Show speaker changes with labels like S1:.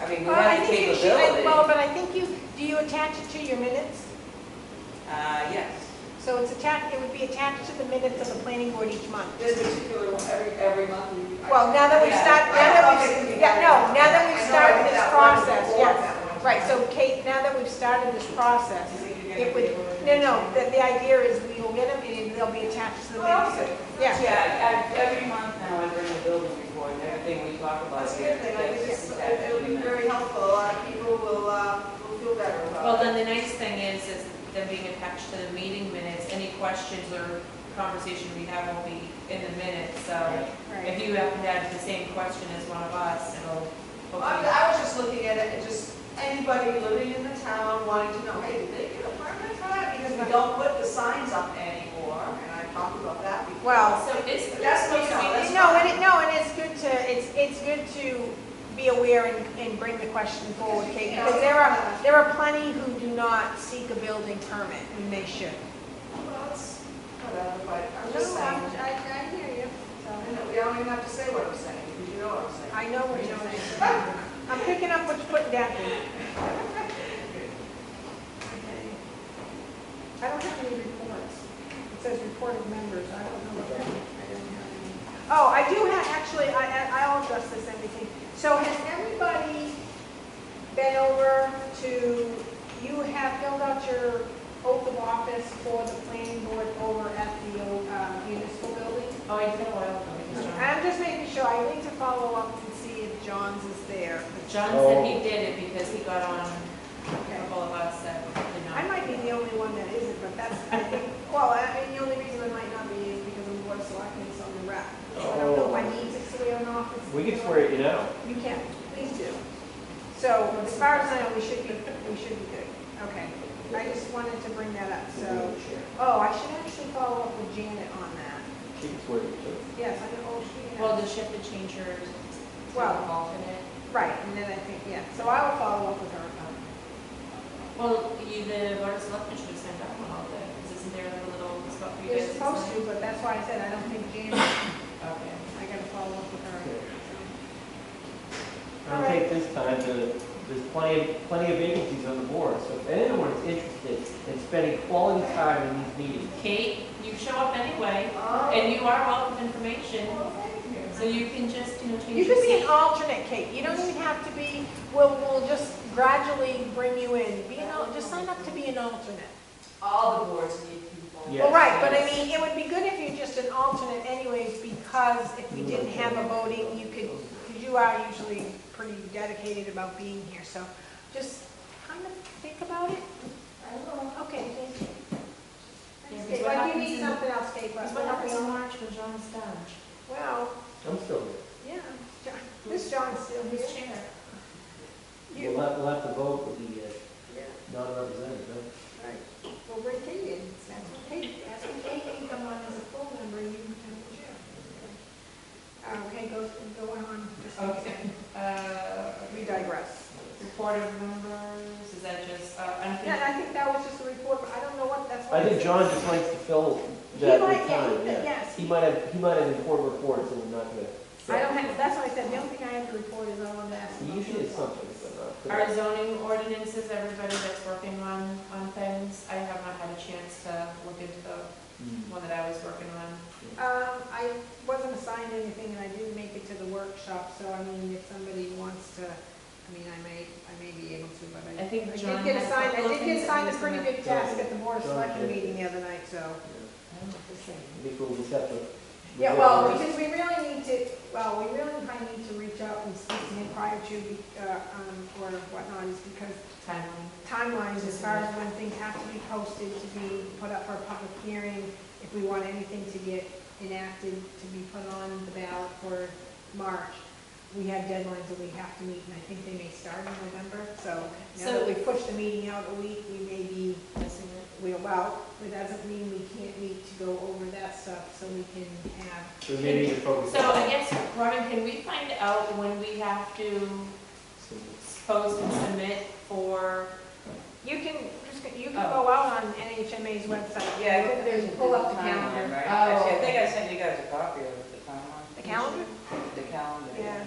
S1: I mean, we
S2: Well, I
S1: have the
S2: think you should-
S1: capability.
S2: Well, but I think you, do you attach it to your minutes?
S1: Uh, yes.
S2: So it's attached, it would be attached to the minutes of the planning board each month.
S3: This particular one, every, every month you.
S2: Well, now that we
S1: Yeah.
S2: start, now that we, yeah, no, now that
S3: I
S2: we've
S3: know
S2: started
S3: that
S2: this
S3: one
S2: process,
S3: before
S2: yes.
S3: that one.
S2: Right, so Kate, now that we've started this process,
S3: You think you're gonna be
S2: it would,
S3: able to-
S2: no, no, the, the idea is we will get them and they'll be attached to the
S3: Well,
S2: minutes.
S3: that's good.
S2: Yeah,
S1: Yeah, I- every month now I bring the building report and everything we talk about
S3: That's a
S1: here.
S3: good thing, I think
S1: gets
S3: it's-
S1: attached
S3: it'll
S1: to
S3: be
S1: the minutes.
S3: very helpful, a lot of people will, uh, will feel better about it.
S4: Well, then the nice thing is, is them being attached to the meeting minutes, any questions or conversation we have will be in the minutes, so
S2: right.
S4: if you happen to have the same question as one of us, it'll,
S3: Well, I was-
S4: hopefully,
S3: I was just looking at it, and just anybody living in the town wanting to know, hey, did they get a permit for that? Because we don't put the signs up anymore, and I talked about that before.
S2: Well,
S4: so it's.
S3: That's what, no, that's.
S2: no, and it, no, and it's good to, it's, it's good to be aware and, and bring the question forward, Kate, because there are, there are plenty who do not seek a building permit, and they should.
S3: Well, it's Whatever, but I'm
S2: No,
S3: just saying,
S2: I, I I hear
S3: I
S2: you. So,
S3: know, we don't even have to say what I'm saying, because you know what I'm saying.
S2: I know what you're saying. I'm picking up what you're putting down. I don't have any reports. It says report of members, I don't know what that is. I don't have any. Oh, I do have, actually, I, I- I'll address this everything. So has everybody been over to, you have filled out your oath of office for the planning board over at the uh, municipal building?
S4: Oh, I did a while ago, because John,
S2: I'm just making sure, I need to follow up and see if John's is there.
S4: John said he did it because he got on a couple of us that did
S2: I
S4: not.
S2: might be the only one that isn't, but that's, I think, well, I mean, the only reason I might not be is because I'm board of selectmen, so I'm the rep. So I don't know if I need to swear or not. it's-
S5: Oh. We can swear you know.
S2: You can, please do. So as far as I know, we should be, we should be good. Okay. I just wanted to bring that up, so, oh, I should actually follow up with Janet on that.
S5: She can swear you too.
S2: Yes, I know, oh, she,
S4: Well, does she have to change her,
S2: Well-
S4: alternate?
S2: right, and then I think, yeah, so I will follow up with her about it.
S4: Well, you, the board of selectmen should have sent out one all day, because isn't there a little spot for you guys?
S2: You're supposed to, but that's why I said I don't think Janet,
S4: Okay.
S2: I gotta follow up with her.
S5: I'll take this time to, there's plenty, of plenty of vacancies on the board, so if anyone is interested in spending quality time in these meetings,
S4: Kate, you show up anyway,
S3: Oh.
S4: and you are wealth of information,
S3: Well, thank you.
S4: so you can just, you know,
S2: You
S4: change your
S2: could be an
S4: seat.
S2: alternate, Kate, you don't even have to be, we'll, we'll just gradually bring you in, be an, al- just sign up to be an alternate.
S3: All the boards need people.
S5: Yeah.
S2: Well, right, but I mean, it would be good if you're just an alternate anyways, because if we didn't have a voting, you could, because you are usually pretty dedicated about being here, so just kind of think about it. I will. Okay, thank you.
S4: Yeah, 'cause
S2: Kate, Like,
S4: what
S2: you
S4: happens
S2: need
S4: in-
S2: something else, Kate, but,
S4: Because what happens in
S2: well,
S4: March when John's done?
S5: I'm still there.
S2: yeah, John- this John's still here.
S4: Who's chair?
S2: You.
S5: We'll have, we'll have to vote with the uh,
S2: Yeah.
S5: non-representative, right?
S2: Right. Well, bring Kate in. Kate, ask if Kate can come on as a full member, you can come as chair. Okay, go, go on.
S4: Okay. Uh,
S2: We digress.
S4: report of members, is that just, uh,
S2: Yeah,
S4: unfinished?
S2: and I think that was just a report, but I don't know what, that's what.
S5: I think John just likes to fill that
S2: might,
S5: with
S2: yeah,
S5: time,
S2: he-
S5: yeah.
S2: yes.
S5: He might have, he might have important reports and we're not gonna.
S2: I don't have, that's what I said, the only thing I have to report is I wanted to ask.
S5: He
S2: about
S5: Usually it's
S2: football.
S5: something, but not.
S4: Our zoning ordinances, everybody that's working on, on things, I have not had a chance to look into the
S5: Mm.
S4: one that I was working on.
S2: Um, I wasn't assigned anything and I didn't make it to the workshop, so I mean, if somebody wants to, I mean, I may, I may be able to, but I.
S4: I think
S2: I
S4: John
S2: did get
S4: has a
S2: assigned, I did
S4: couple of
S2: get
S4: things that
S2: assigned a
S4: he's
S2: pretty
S4: gonna-
S2: good task at the board of
S5: John
S2: selection
S5: did.
S2: meeting the other night, so.
S5: I think we'll just have to.
S2: Yeah, well, because we really need to, well, we really probably need to reach out and speak to him prior to, uh, um, or whatnot, is because
S4: Timeline.
S2: timelines as far as when things have to be posted to be put up for a public hearing, if we want anything to get enacted, to be put on the ballot for March. We have deadlines that we have to meet, and I think they may start in November, so now that
S4: So-
S2: we push the meeting out a week, we may be,
S4: Missing it.
S2: we allow, but that doesn't mean we can't meet to go over that stuff, so we can have
S5: So maybe you focus.
S4: So I
S5: on-
S4: guess, Robin, can we find out when we have to post and submit for,
S2: You can, just you can go out on NHMA's website.
S1: Yeah, I
S2: Look,
S1: think
S2: There's,
S1: there's
S2: pull up the
S1: timeline,
S2: calendar.
S1: right?
S4: Oh.
S1: Actually, I think I sent you guys a copy of the timeline.
S2: The calendar?
S1: The calendar.
S2: Yeah.